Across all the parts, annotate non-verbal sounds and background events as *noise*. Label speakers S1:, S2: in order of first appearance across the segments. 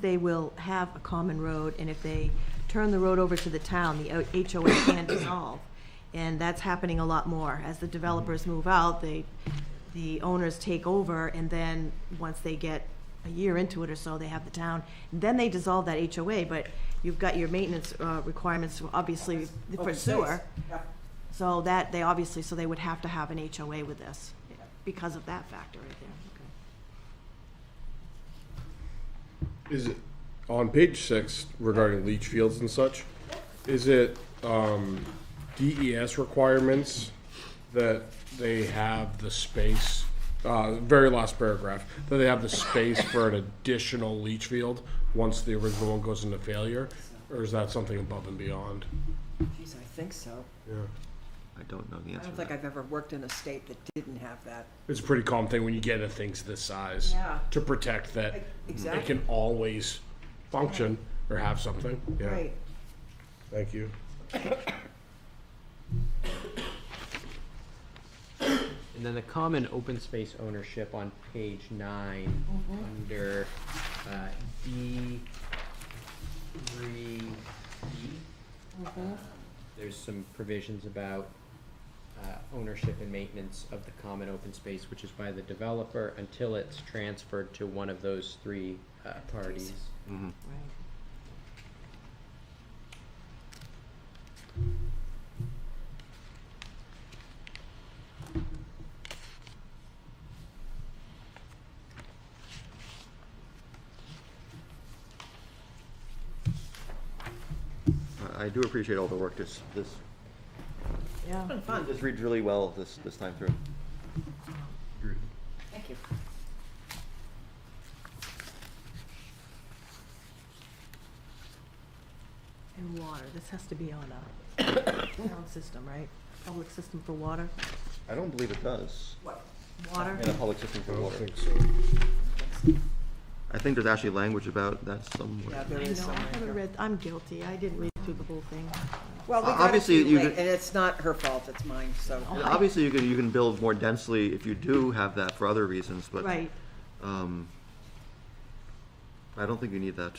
S1: they will have a common road, and if they turn the road over to the town, the O- HOA can dissolve. And that's happening a lot more. As the developers move out, they, the owners take over, and then, once they get a year into it or so, they have the town. Then they dissolve that HOA, but you've got your maintenance uh, requirements, obviously, for
S2: Open space.
S1: sewer.
S2: Yeah.
S1: So that, they obviously, so they would have to have an HOA with this, because of that factor right there.
S3: Is it on page six regarding leach fields and such? Is it um, DES requirements that they have the space? Uh, very last paragraph that they have the space for an additional leach field once the original one goes into failure, or is that something above and beyond?
S2: Geez, I think so.
S3: Yeah,
S4: I don't know the
S2: I
S4: answer
S2: don't
S4: to
S2: think
S4: that.
S2: I've ever worked in a state that didn't have that.
S3: it's a pretty common thing when you get into things this size
S2: Yeah.
S3: to protect that
S2: E-
S3: it can
S2: exactly.
S3: always function or have something. Yeah,
S2: Right.
S3: thank you.
S5: And then the common open space ownership on page 9 under uh, D three E. There's some provisions about uh, ownership and maintenance of the common open space, which is by the developer until it's transferred to one of those three uh, parties.
S1: Right.
S4: I I do appreciate all the work this, this,
S1: Yeah.
S4: this reads really well this, this time through.
S2: Thank you.
S1: And water, this has to be on a town system, right? Public system for water?
S4: I don't believe it does.
S2: What?
S1: Water?
S4: In a public system
S3: I
S4: for
S3: don't
S4: water.
S3: think so.
S4: I think there's actually language about that somewhere.
S2: Yeah,
S1: I
S2: there is
S1: know,
S2: some.
S1: I
S2: right
S1: haven't
S2: here.
S1: read, I'm guilty, I didn't read through the whole thing.
S2: Well, we
S4: Uh,
S2: got it
S4: obviously,
S2: too
S4: you
S2: late,
S4: could-
S2: and it's not her fault, it's mine, so.
S4: And obviously, you can, you can build more densely if you do have that for other reasons, but.
S1: Right,
S4: Um, I don't think you need that.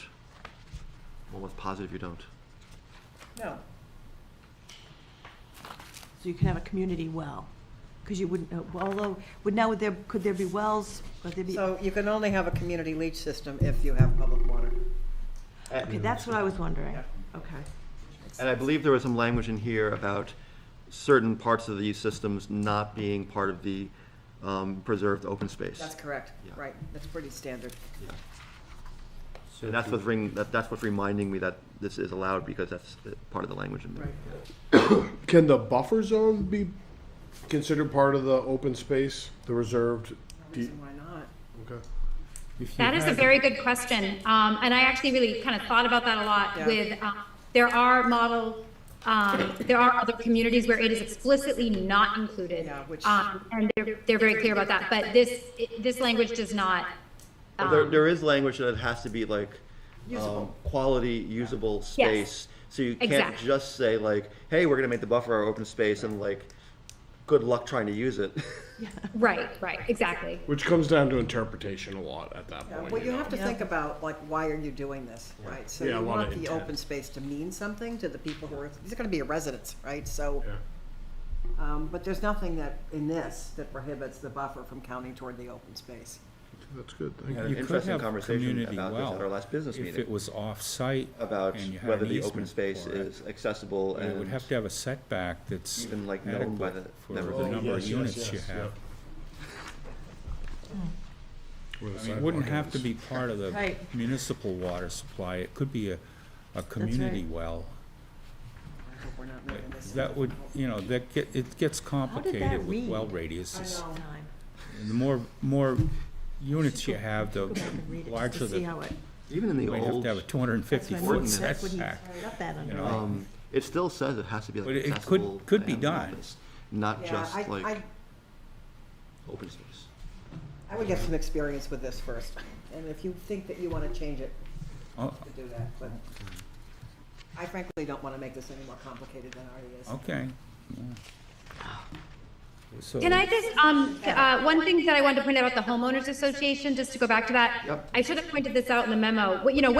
S4: I'm almost positive you don't.
S2: No,
S1: so you can have a community well, because you wouldn't, uh, well, although, would now, would there, could there be wells, could there be?
S2: so you can only have a community leach system if you have public water.
S1: Okay, that's what I was wondering,
S2: Yeah.
S1: okay.
S4: And I believe there was some language in here about certain parts of these systems not being part of the um, preserved open space.
S2: That's correct,
S4: Yeah.
S2: right, that's pretty standard.
S4: Yeah.
S5: So
S4: And that's
S5: do-
S4: what's ring, that, that's what's reminding me that this is allowed because that's uh, part of the language in there.
S3: Can the buffer zone be considered part of the open space, the reserved?
S2: No reason why not.
S3: Okay.
S6: That is a very good question. Um, and I actually really kind of thought about that a lot
S2: Yeah.
S6: with, um, there are model, um, there are other communities where it is explicitly not included.
S2: Yeah, which-
S6: Um, and they're, they're very clear about that, but this, it- this language does not.
S4: But There,
S6: um,
S4: there is language that it has to be like, um,
S2: Usable.
S4: quality, usable space. So you can't
S6: Exactly.
S4: just say like, hey, we're gonna make the buffer our open space and like, good luck trying to use it.
S6: Right, right, exactly.
S3: Which comes down to interpretation a lot at that
S2: Yeah,
S3: point.
S2: Well, you
S3: know.
S2: have to think about, like, why are you doing this, right? So
S3: Yeah,
S2: you
S3: a lot of
S2: want the
S3: intent.
S2: open space to mean something to the people who are, these are gonna be your residents, right? So,
S3: Yeah.
S2: um, but there's nothing that, in this, that prohibits the buffer from counting toward the open space.
S3: That's good.
S4: *laughs* had
S7: You could
S4: an
S7: have
S4: interesting conversation
S7: community
S4: about this at
S7: well
S4: our last business
S7: If
S4: meeting.
S7: it was off-site.
S4: About
S7: and you had
S4: whether
S7: an
S4: the open
S7: easement
S4: space
S7: for it,
S4: is accessible
S7: but It would
S4: and,
S7: have to have a setback that's
S4: Even, like, known by the
S7: adequate for
S4: members of
S7: the
S4: the
S7: number of
S3: community. Yes,
S7: units you
S3: yes,
S7: have.
S3: Where the
S7: Hmm. I mean, it wouldn't
S3: sidewalk
S7: have to
S3: is.
S7: be part of
S1: *laughs*
S7: the
S1: Right.
S7: municipal water supply. It could be a, a community well.
S2: I hope we're not making this.
S7: That would, you know, that get, it gets complicated with
S1: read?
S7: well radiuses.
S1: Time.
S7: And The more, more units you
S1: go-
S7: have, the
S1: Go back and read it, just
S7: larger
S1: to see
S7: the,
S1: how it,
S4: even in the
S7: you might have
S4: old,
S7: to have a two hundred and
S1: that's
S7: fifty
S1: what I
S7: foot
S1: mean,
S4: ordinance.
S1: that's what he's
S7: setback.
S1: got that under.
S7: know,
S1: right?
S4: um, it still says it has to be
S7: But
S4: like
S7: it could-
S4: accessible.
S7: could be
S4: and
S7: done.
S4: office, Not
S2: Yeah,
S4: just
S2: I, I,
S4: like open space.
S2: I would get some experience with this first, and if you think that you wanna change it,
S7: Oh,
S2: to do that, but I frankly don't wanna make this any more complicated than it already is.
S7: okay. so.
S6: Can I just, um, uh, one thing that I wanted to point out about the homeowners association, just to go back to that?
S4: Yep.
S6: I should have pointed this out in the memo. What- You know,